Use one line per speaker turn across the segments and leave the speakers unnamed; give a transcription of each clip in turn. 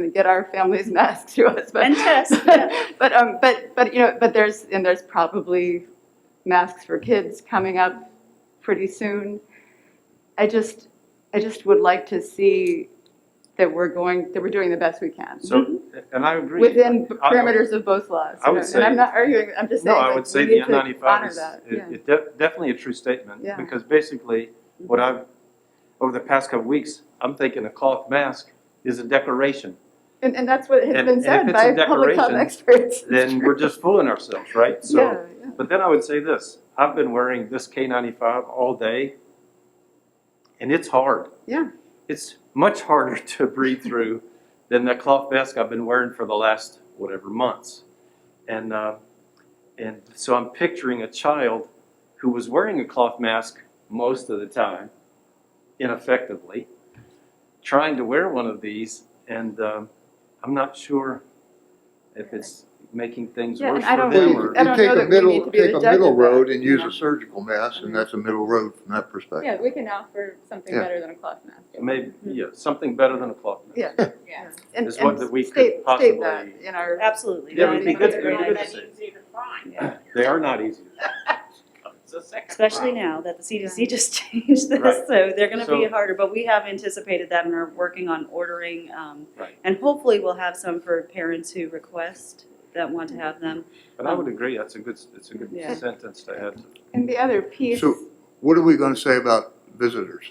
gonna get our family's masks to us, but.
And test, yeah.
But, um, but, but, you know, but there's, and there's probably masks for kids coming up pretty soon. I just, I just would like to see that we're going, that we're doing the best we can.
So, and I agree.
Within
I- I-
parameters of both laws.
I
you
would
know, And I'm
say-
not arguing, I'm just saying.
No, I
like,
would
we
say
need
the
to honor
N95 is,
that,
it-
yeah.
it def- definitely a true statement.
Yeah. Mm-hmm.
Because basically, what I've, over the past couple weeks, I'm thinking a cloth mask is a declaration.
And, and that's what has
And-
been
and
said
if it's
by
a
public health
declaration,
experts.
Then we're just fooling ourselves, right? So,
Yeah, yeah.
but then I would say this, I've been wearing this K95 all day, and it's hard.
Yeah.
It's much harder to breathe through than the cloth mask I've been wearing for the last whatever months. And, uh, and so I'm picturing a child who was wearing a cloth mask most of the time, ineffectively, trying to wear one of these, and um, I'm not sure if it's making things
Yeah, and
worse
I
for
don't
them
think-
or.
I don't know that we need to be the
Take a middle, take
judge
a middle
of that,
road and
you
use
know?
a surgical mask, and that's a middle road from that perspective.
Yeah, we can offer something
Yeah.
better than a cloth mask.
Maybe, yeah, something better than a cloth mask.
Yeah.
Yeah.
And,
Is what
and
that we could
state, state that
possibly-
in our.
Absolutely.
Yeah, it would be good- it would be
good to see.
easy to find.
They are not easy.
It's a second problem.
Especially now that the CDC just changed
Right.
this, so they're gonna be
So-
harder, but we have anticipated that and are working on ordering. um,
Right.
And hopefully we'll have some for parents who request that want to have them.
But I would agree, that's a good, it's a good
Yeah.
sentence to add.
And the other piece,
So- What are we gonna say about visitors?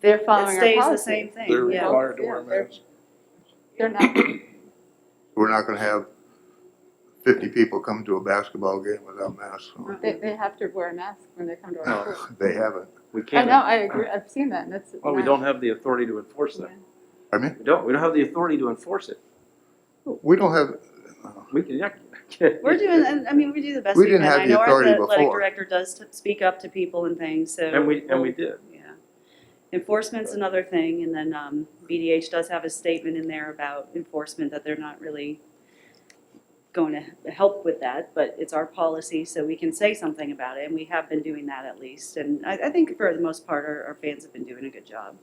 they're
It
following our
stays the
policy.
same thing, yeah.
required to wear masks. They're not,
We're not gonna have fifty people come to a basketball game without masks on.
Uh-uh.
they, they have to wear a mask when they come to our
No,
school.
they haven't.
We
I
can't,
know, I agree, I've seen that, and that's.
well, we
not-
don't have the authority to enforce that.
Pardon me?
We don't, we don't have the authority to enforce it.
We don't have,
We can, yeah.
We're doing, and, I mean, we do the best
We
we can.
didn't have the authority
I know our athletic
before.
director does t- speak up to people and things, so.
And we, and we did.
Yeah. Enforcement's another thing, and then um, BDH does have a statement in there about enforcement, that they're not really going to help with that, but it's our policy, so we can say something about it, and we have been doing that at least. And I, I think for the most part, our, our fans have been doing a good job.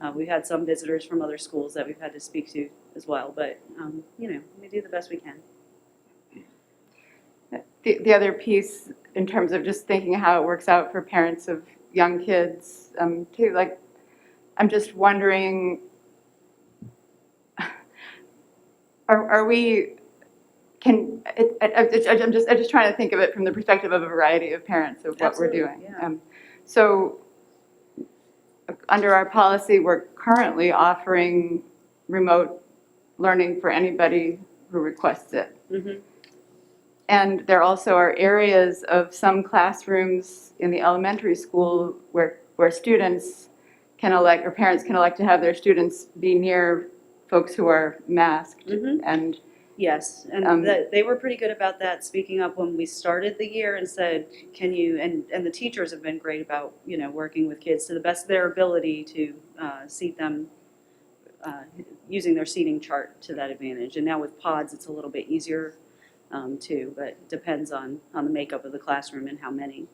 Uh, We've had some visitors from other schools that we've had to speak to as well, but, um, you know, we do the best we can.
The, the other piece, in terms of just thinking how it works out for parents of young kids, um, too, like, I'm just wondering, are, are we, can, it, I, I- I'm just, I'm just trying to think of it from the perspective of a variety of parents of what we're
Absolutely,
doing.
yeah.
Um, So, under our policy, we're currently offering remote learning for anybody who requests it. And there also are areas of some classrooms in the elementary school where, where students can elect, or parents can elect to have their students be near folks who are masked.
Mhm.
And,
Yes,
Um,
and that, they were pretty good about that, speaking up when we started the year and said, can you, and, and the teachers have been great about, you know, working with kids to the best of their ability to uh, seat them, uh, using their seating chart to that advantage. And now with pods, it's a little bit easier um, too, but it depends on, on the makeup of the classroom and how many.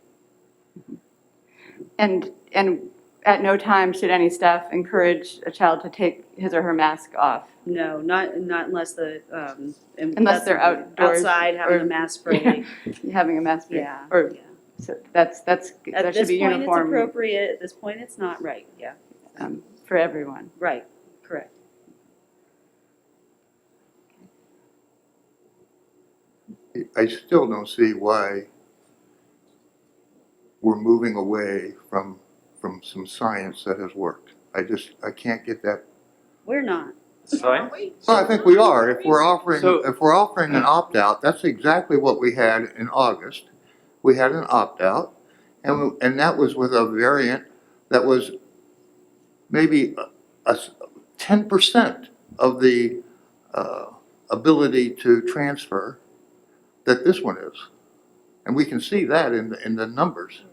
and, and at no time should any staff encourage a child to take his or her mask off.
No, not, not unless the, um. and
Unless they're
that's-
outdoors
Outside, having
or-
a mask break,
Having a mask, break.
yeah.
Or-
yeah.
so that's, that's,
At
that should
this
be
point, it's
uniform
appropriate, at this point, it's not right, yeah.
um, for everyone.
Right, correct.
I still don't see why we're moving away from, from some science that has worked. I just, I can't get that
We're not.
Science?
Well, I think we are. If we're offering,
So-
if we're offering an opt-out, that's exactly what we had in August. We had an opt-out, and, we- and that was with a variant that was maybe a, ten percent of the, uh, ability to transfer that this one is. And we can see that in, the- in the numbers.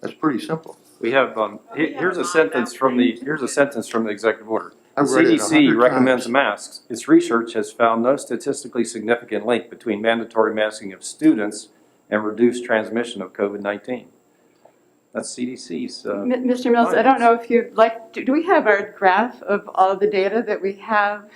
That's pretty simple.
We have, um, he- here's a sentence from the, here's a sentence from the executive order.
I read it a
CDC
hundred
recommends
times.
masks. Its research has found no statistically significant link between mandatory masking of students and reduced transmission of COVID-19. That's CDC's, uh,
M- Mr. Mills, I don't know if you'd like, do do we have our graph of all the data that we have